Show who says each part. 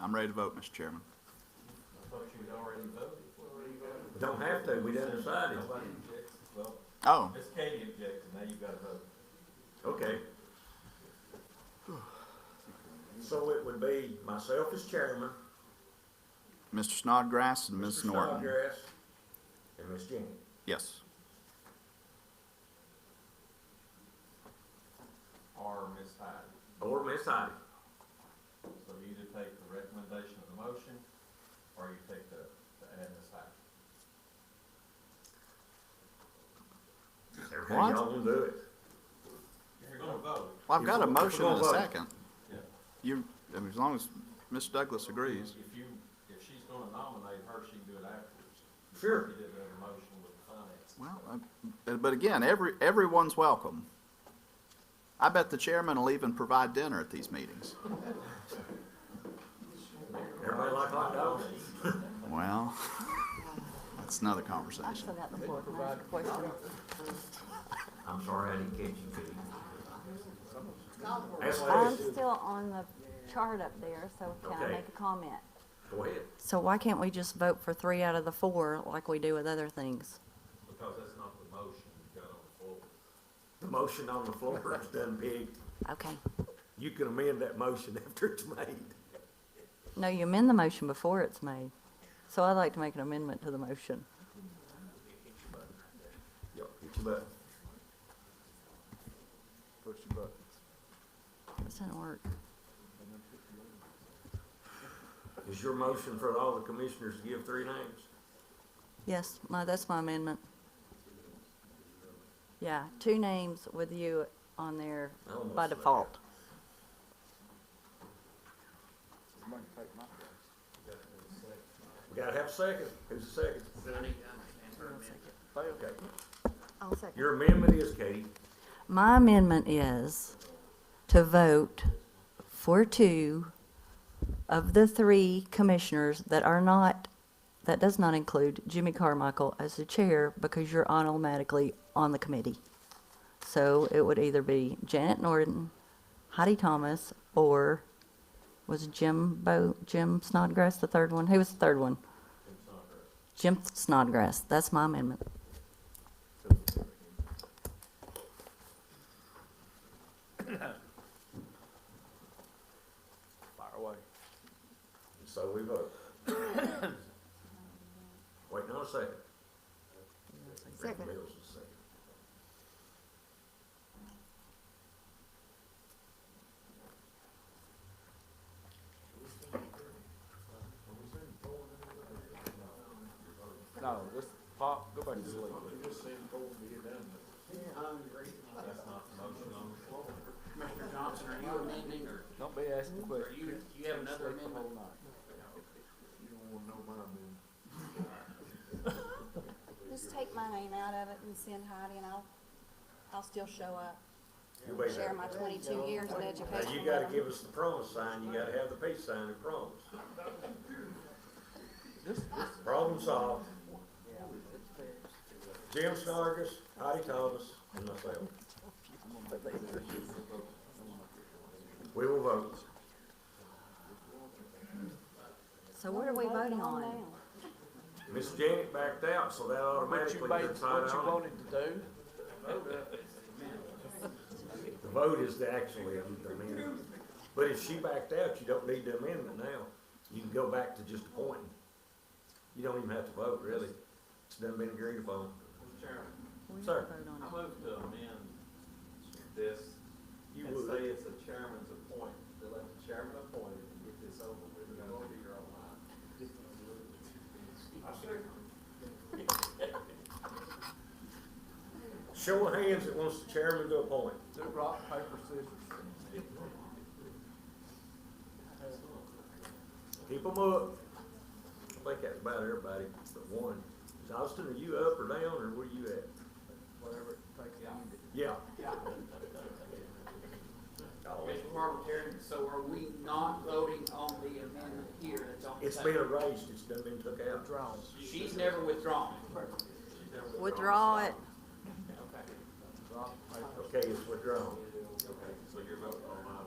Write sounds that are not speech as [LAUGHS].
Speaker 1: I'm ready to vote, Mr. Chairman.
Speaker 2: Don't have to, we done decided.
Speaker 1: Oh,
Speaker 3: Miss Katie objected, now you've got to vote.
Speaker 2: Okay. So it would be myself as chairman,
Speaker 1: Mr. Snodgrass and
Speaker 2: Mr.
Speaker 1: Ms. Norton.
Speaker 2: Snodgrass, and Ms. Jenkins.
Speaker 1: Yes.
Speaker 3: Or Miss Hyde.
Speaker 2: Or Ms. Heidi.
Speaker 3: So you either take the recommendation of the motion, or you take the, the add Miss Hyde.
Speaker 2: Everything
Speaker 1: What?
Speaker 2: y'all gonna do it.
Speaker 3: If you're gonna vote,
Speaker 1: Well, I've got a
Speaker 2: If we're gonna
Speaker 1: motion and a
Speaker 2: vote.
Speaker 1: second.
Speaker 3: Yeah.
Speaker 1: You, I mean, as long as Ms. Douglas agrees.
Speaker 3: if you, if she's gonna nominate her, she can do it afterwards.
Speaker 2: Sure.
Speaker 3: You did have a motion with the finance.
Speaker 1: Well, uh, but again, every, everyone's welcome. I bet the chairman will even provide dinner at these meetings.
Speaker 2: Everybody like hot dogs?
Speaker 1: Well, [LAUGHS] that's another conversation.
Speaker 4: still got the floor, can I ask a question?
Speaker 2: I'm sorry, I didn't catch you, Pete. That's
Speaker 4: I'm
Speaker 2: what it is.
Speaker 4: still on the chart up there, so can I
Speaker 2: Okay.
Speaker 4: make a comment?
Speaker 2: Go ahead.
Speaker 5: So why can't we just vote for three out of the four like we do with other things?
Speaker 3: Because that's not the motion you got on the floor.
Speaker 2: The motion on the floor is done, Peg.
Speaker 5: Okay.
Speaker 2: You can amend that motion [LAUGHS] after it's made.
Speaker 5: No, you amend the motion before it's made. So I'd like to make an amendment to the motion.
Speaker 2: Yep, hit your button.
Speaker 5: This doesn't work.
Speaker 2: Is your motion for all the commissioners to give three names?
Speaker 5: Yes, my, that's my amendment. Yeah, two names with you on there
Speaker 2: I almost
Speaker 5: by
Speaker 2: like that.
Speaker 5: default.
Speaker 2: We gotta have a second. Who's the second? Okay.
Speaker 4: I'll second.
Speaker 2: Your amendment is, Katie,
Speaker 5: My amendment is to vote for two of the three commissioners that are not, that does not include Jimmy Carmichael as the chair because you're automatically on the committee. So it would either be Janet Norton, Heidi Thomas, or was Jim Bo, Jim Snodgrass the third one? Who was the third one? Jim Snodgrass. That's my amendment.
Speaker 2: so we
Speaker 5: [COUGHS]
Speaker 2: vote. Wait, not a second. Second. Mills is second.
Speaker 6: No, just pop, go back to sleep.
Speaker 3: That's not the motion on the floor.
Speaker 7: Mr. Johnson, are you amending or
Speaker 6: Don't be asking
Speaker 7: or
Speaker 6: questions.
Speaker 7: you, you have another
Speaker 6: Sleep the
Speaker 7: amendment?
Speaker 6: whole night.
Speaker 4: Just take my name out of it and send Heidi and I'll, I'll still show up,
Speaker 2: You wait
Speaker 4: share
Speaker 2: there.
Speaker 4: my twenty-two years of
Speaker 2: Now, you
Speaker 4: education.
Speaker 2: gotta give us the promise sign, you gotta have the peace sign and promise. Problem solved. Jim Snargus, Heidi Thomas, and myself. We will vote.
Speaker 5: So what are we voting on?
Speaker 4: now?
Speaker 2: Miss Janet backed out, so that
Speaker 6: What
Speaker 2: automatically
Speaker 6: you made,
Speaker 2: puts Heidi
Speaker 6: what you
Speaker 2: on.
Speaker 6: wanted to do,
Speaker 2: The vote is the actually the amendment. But if she backed out, you don't need the amendment now. You can go back to just appointing. You don't even have to vote, really. It's done been agreed upon.
Speaker 3: Mr. Chairman,
Speaker 5: We need to
Speaker 2: Sir.
Speaker 5: vote on it.
Speaker 3: I move to amend this
Speaker 2: You
Speaker 3: and
Speaker 2: would.
Speaker 3: say it's the chairman's appoint, to let the chairman appoint it and get this over with, you gotta do your own line.
Speaker 2: Show of hands that wants the chairman to appoint.
Speaker 6: do rock, paper, scissors.
Speaker 2: Keep them up. I think that's about everybody but one. Austin, are you up or down, or where you at?
Speaker 6: Whatever it takes to end it.
Speaker 2: Yeah.
Speaker 7: Mr. Parliamentarian, so are we not voting on the amendment here that's on the
Speaker 2: It's been
Speaker 7: table?
Speaker 2: erased, it's done been took out.
Speaker 6: Draws,
Speaker 7: She's never withdrawn.
Speaker 5: Withdraw it.
Speaker 7: Okay.
Speaker 6: rock, paper.
Speaker 2: Okay, it's withdrawn.
Speaker 3: So you're voting on my